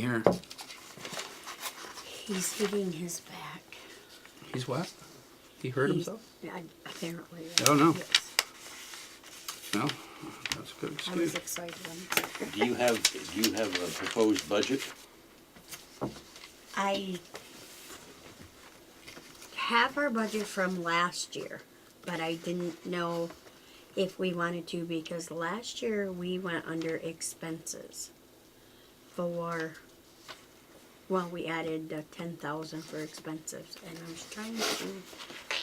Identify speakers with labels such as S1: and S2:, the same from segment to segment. S1: Here,
S2: He's hitting his back.
S1: he's what? He hurt
S2: He's-
S1: himself?
S2: I- Apparently.
S1: I don't know.
S2: Yes.
S1: No, that's a good
S2: I
S1: excuse.
S2: was excited.
S3: Do you have, do you have a proposed budget?
S2: I have our budget from last year, but I didn't know if we wanted to because last year we went under expenses for, well, we added uh, ten thousand for expenses and I was trying to,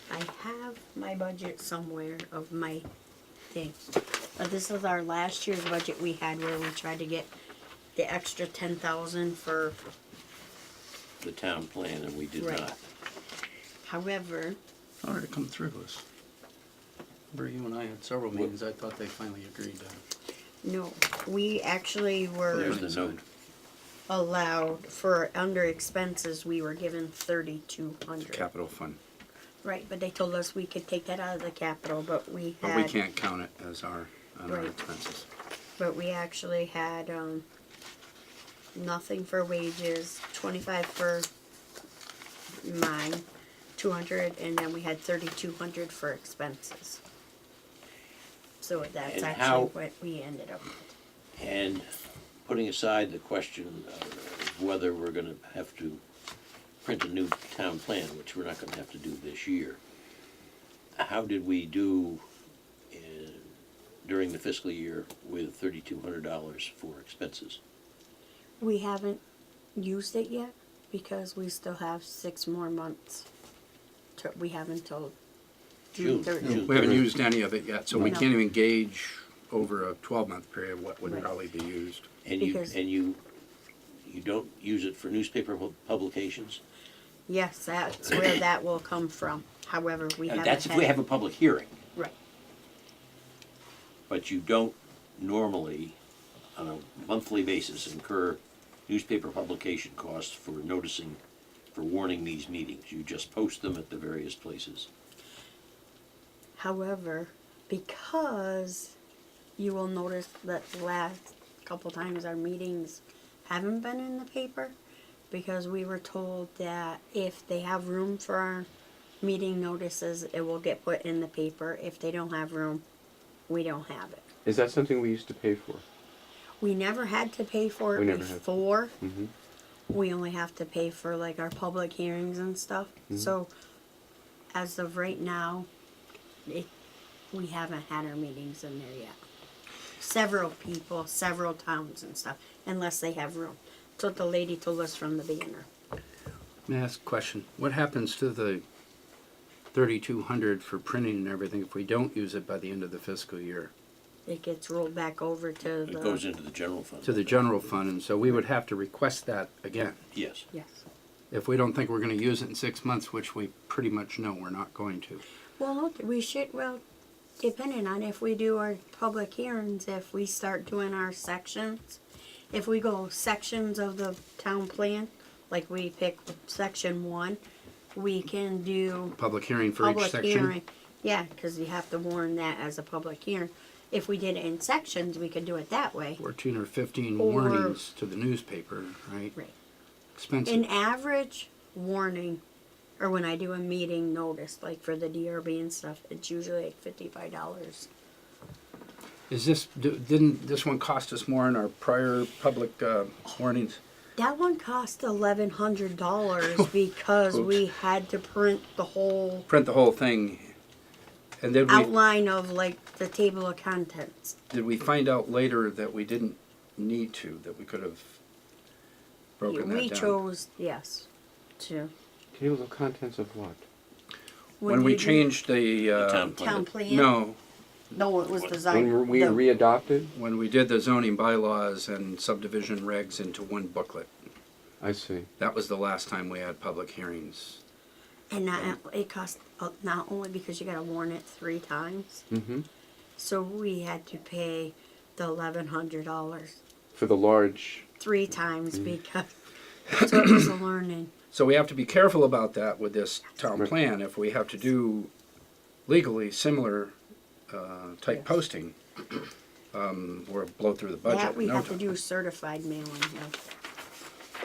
S2: I have my budget somewhere of my thing. But this is our last year's budget we had where we tried to get the extra ten thousand for
S3: The town plan, and we did
S2: Right.
S3: not.
S2: However,
S1: How did it come through us? Remember you and I had several meetings, I thought they finally agreed to.
S2: no, we actually were
S3: There's the note.
S2: allowed for under expenses, we were given thirty-two hundred.
S1: Capital fund,
S2: Right, but they told us we could take that out of the capital, but we
S1: but we
S2: had,
S1: can't count it as our, on our
S2: Right.
S1: expenses.
S2: but we actually had, um, nothing for wages, twenty-five for mine, two hundred, and then we had thirty-two hundred for expenses. So that's
S3: And
S2: actually
S3: how-
S2: what we ended up with.
S3: And putting aside the question of whether we're gonna have to print a new town plan, which we're not gonna have to do this year, how did we do in, during the fiscal year with thirty-two hundred dollars for expenses?
S2: We haven't used it yet because we still have six more months. To, we have until June
S3: June,
S2: thirtieth.
S3: June.
S1: We haven't used any of it yet, so we
S2: No.
S1: can't even gauge over a twelve-month period what would
S2: Right.
S1: probably be used.
S3: And you,
S2: Because-
S3: and you, you don't use it for newspaper pu- publications?
S2: Yes, that's where that will come from. However, we
S3: Uh,
S2: haven't.
S3: That's if we
S2: had-
S3: have a public hearing.
S2: Right,
S3: but you don't normally, on a monthly basis, incur newspaper publication costs for noticing, for warning these meetings. You just post them at the various places.
S2: however, because you will notice that the last couple times our meetings haven't been in the paper. Because we were told that if they have room for our meeting notices, it will get put in the paper. If they don't have room, we don't have it.
S4: Is that something we used to pay for?
S2: We never had to pay for
S4: We
S2: it
S4: never had to.
S2: before.
S4: Mhm.
S2: We only have to pay for like our public hearings and stuff.
S4: Mm-hmm.
S2: So as of right now, it, we haven't had our meetings in there yet. Several people, several towns and stuff, unless they have room. That's what the lady told us from the beginner.
S1: May I ask a question? What happens to the thirty-two hundred for printing and everything if we don't use it by the end of the fiscal year?
S2: It gets rolled back over to the.
S3: It goes into the general fund.
S1: To the general fund, and so we would have to request that again.
S3: Yes.
S2: Yes.
S1: if we don't think we're going to use it in six months, which we pretty much know we're not going to.
S2: Well, no, we should, well, depending on if we do our public hearings, if we start doing our sections, if we go sections of the town plan, like we pick section one, we can do
S1: Public hearing for each
S2: public
S1: section.
S2: hearing. Yeah, cause you have to warn that as a public hearing. If we did it in sections, we could do it that way.
S1: Fourteen or fifteen
S2: Or-
S1: warnings to the newspaper, right?
S2: Right.
S1: Expensive.
S2: An average warning, or when I do a meeting notice, like for the DRB and stuff, it's usually like fifty-five dollars.
S1: Is this d- didn't this one cost us more in our prior public uh, warnings?
S2: That one cost eleven hundred dollars because we had to print the whole
S1: Print the whole thing, and then we
S2: outline of like the table of contents.
S1: did we find out later that we didn't need to that we could have broken that
S2: we
S1: down
S2: chose yes to
S4: Table of contents of what?
S1: when, we
S2: you do-
S1: changed the, uh,
S3: town plan.
S2: town plan.
S1: no
S2: no, it was
S3: When
S2: designed.
S4: When we
S2: the-
S4: readopted?
S1: when we did the zoning bylaws and subdivision regs into one booklet.
S4: I see.
S1: That was the last time we had public hearings.
S2: and not, it cost uh, not only because you got to warn it three times,
S4: Mm-hmm.
S2: so we had to pay the eleven hundred dollars
S4: For the large,
S2: three times
S1: Mm.
S2: because so it was a learning.
S1: So we have to be careful about that with this town
S4: Right.
S1: plan. If we have to do legally similar uh, type
S2: Yes.
S1: posting, um, or blow through the budget.
S2: That we
S1: in no
S2: have to
S1: time.
S2: do certified mailing of.